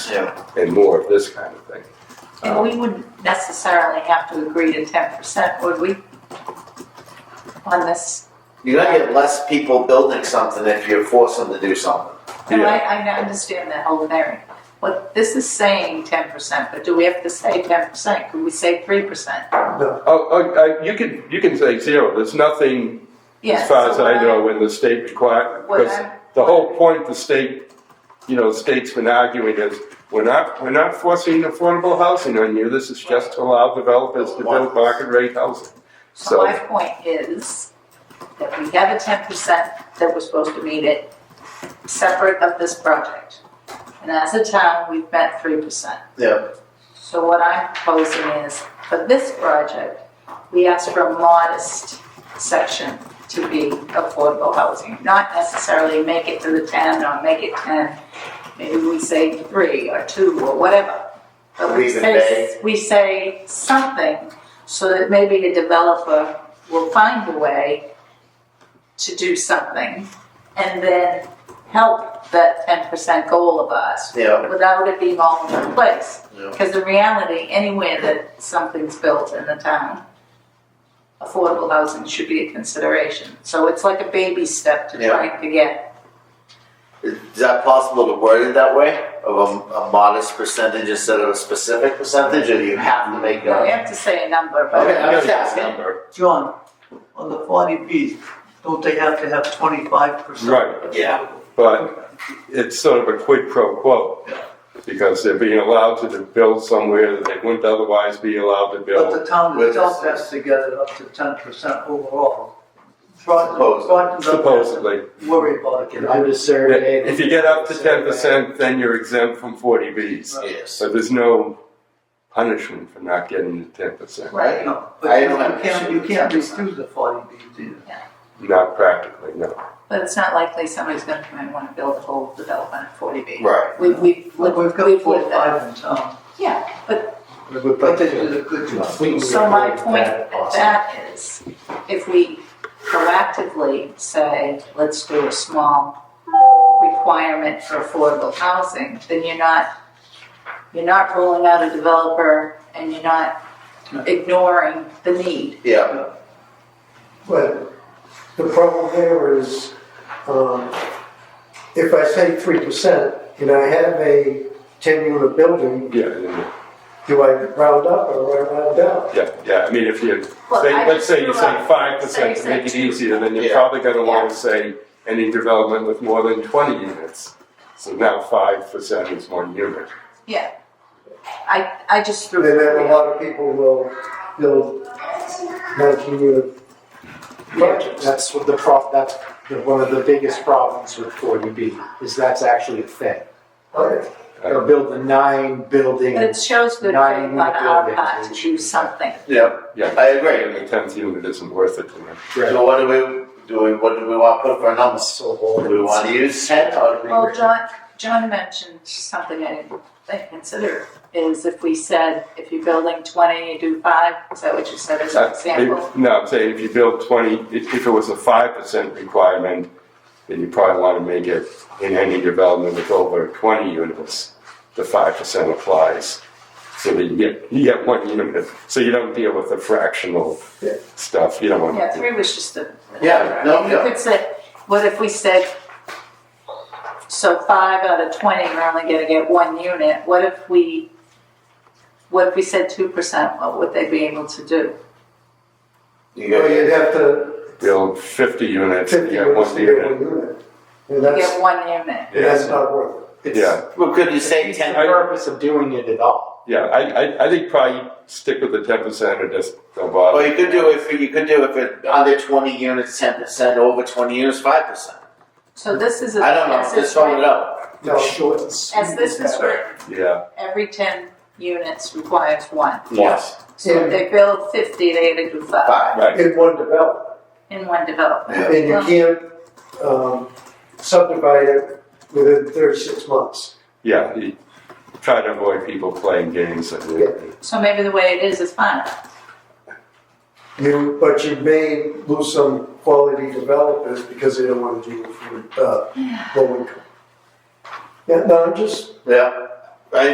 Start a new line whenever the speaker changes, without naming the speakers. Yeah.
and more of this kind of thing.
And we wouldn't necessarily have to agree to ten percent, would we? On this,
You're gonna get less people building something if you force them to do something.
no, I, I understand that whole thing. What, this is saying ten percent, but do we have to say ten percent? Could we say three percent?
Oh, oh, uh, you can, you can say zero, there's nothing, as far as I know, in the state require,
What
because
I-
the whole point the state, you know, state's been arguing is, we're not, we're not forcing affordable housing on you, this is just to allow developers to build market rate housing.
So my
So,
point is that we have a ten percent that we're supposed to meet it separate of this project. And as a town, we've met three percent.
Yeah.
So what I'm proposing is, for this project, we ask for a modest section to be affordable housing. Not necessarily make it to the ten or make it ten, maybe we say three or two or whatever. But we
Leave it
say, we say something so that maybe a developer will find a way to do something and then help that ten percent goal of ours
Yeah.
without it being all in one place.
Yeah.
Because in reality, anywhere that something's built in the town, affordable housing should be a consideration. So it's like a baby step to
Yeah.
trying to get.
Is that possible to word it that way? Of a, a modest percentage instead of a specific percentage, or do you have to make
We
a?
have to say a number,
Okay,
but
I'm just asking.
number,
John, on the forty Bs, don't they have to have twenty-five percent?
Right.
Yeah.
but it's sort of a quid pro quo.
Yeah.
Because they're being allowed to build somewhere that they wouldn't otherwise be allowed to build.
But the town
With
itself
this.
has to get it up to ten percent overall. Groton,
Supposedly.
Groton doesn't have to
Supposedly.
Worry about it.
I'm just surveyed.
If you get up to ten percent, then you're exempt from forty Bs.
Yes.
So there's no punishment for not getting to ten percent.
Right.
No,
I
but you
don't have an
can't,
issue
you
with
can't
10%.
refuse the forty Bs either.
Not practically, no.
but it's not likely somebody's gonna come and wanna build a whole development at forty B.
Right.
We, we've, lived-
Look, we've got
we've
four, or
lived that.
five in town,
Yeah, but,
but they did a good job.
so my point of that is, if we proactively say, let's do a small requirement for affordable housing, then you're not You're not ruling out a developer and you're not ignoring the need.
Yeah.
But the problem there is, um, if I say three percent and I have a ten unit building,
Yeah, yeah,
do I round up or do I round down?
yeah, yeah. I mean, if you,
Well,
say,
I
let's say you
just threw
say
out-
five
say
percent to
you
make it
said two.
easier, then you're
Yeah.
probably gonna wanna say any development with more than twenty units. So now five percent is one unit.
I, I just threw
Then
it
a
out.
lot of people will build nineteen unit
Yeah, that's what the prob, that's the- one of the biggest problems with 40B, is that's actually a thing.
homes.
They'll build the nine building.
But it shows good faith
Nine
on
unit
our
buildings
part
and
to do
cheap.
something.
Yeah.
Yeah.
I agree.
And the tenth unit isn't worth it to them.
So what do we do? We what do we want to put for a number?
So
Do we want to use ten or do we?
Well, John, John mentioned something I didn't think- consider, is if we said, if you're building twenty, you do five, is that what you said as an
Uh,
example?
if- No, I'm saying if you build twenty, if, if it was a five percent requirement, then you probably wanna make it in any development with over twenty units, the five percent applies. So that you get, you get one unit, so you don't deal with the fractional
Yeah.
stuff, you don't wanna.
Yeah, three was just a.
Yeah, no,
You
yeah.
could say, what if we said, so five out of twenty, we're only gonna get one unit, what if we, what if we said two percent, what would they be able to do?
You
Or
go-
you'd have to
Build fifty units, you
fifty
get
units
one
to get one
unit.
unit. And
You
that's,
get one unit,
and that's not worth it.
it's-
Yeah.
Well, could you say
It's the
ten?
purpose of doing it at all.
Yeah, I, I, I think probably stick with the ten percent or just don't bother.
Well, you could do if you could do if it under twenty units, ten percent. Over twenty units, five percent.
so this is. a-
I don't know.
as
Just
it's
throw it
written-
out.
No.
Short and sweet
As this is
that way.
written,
Yeah,
every ten units requires one,
yes,
so if they build fifty, they had to do five
Five.
right,
in one development,
in one development.
and you can't, um, subdivide it within thirty-six months.
yeah, you try to avoid people playing games and.
So maybe the way it is is fine,
You, but you may lose some quality developers because they don't wanna deal with, uh, low income. Yeah, no, I'm just,
Yeah.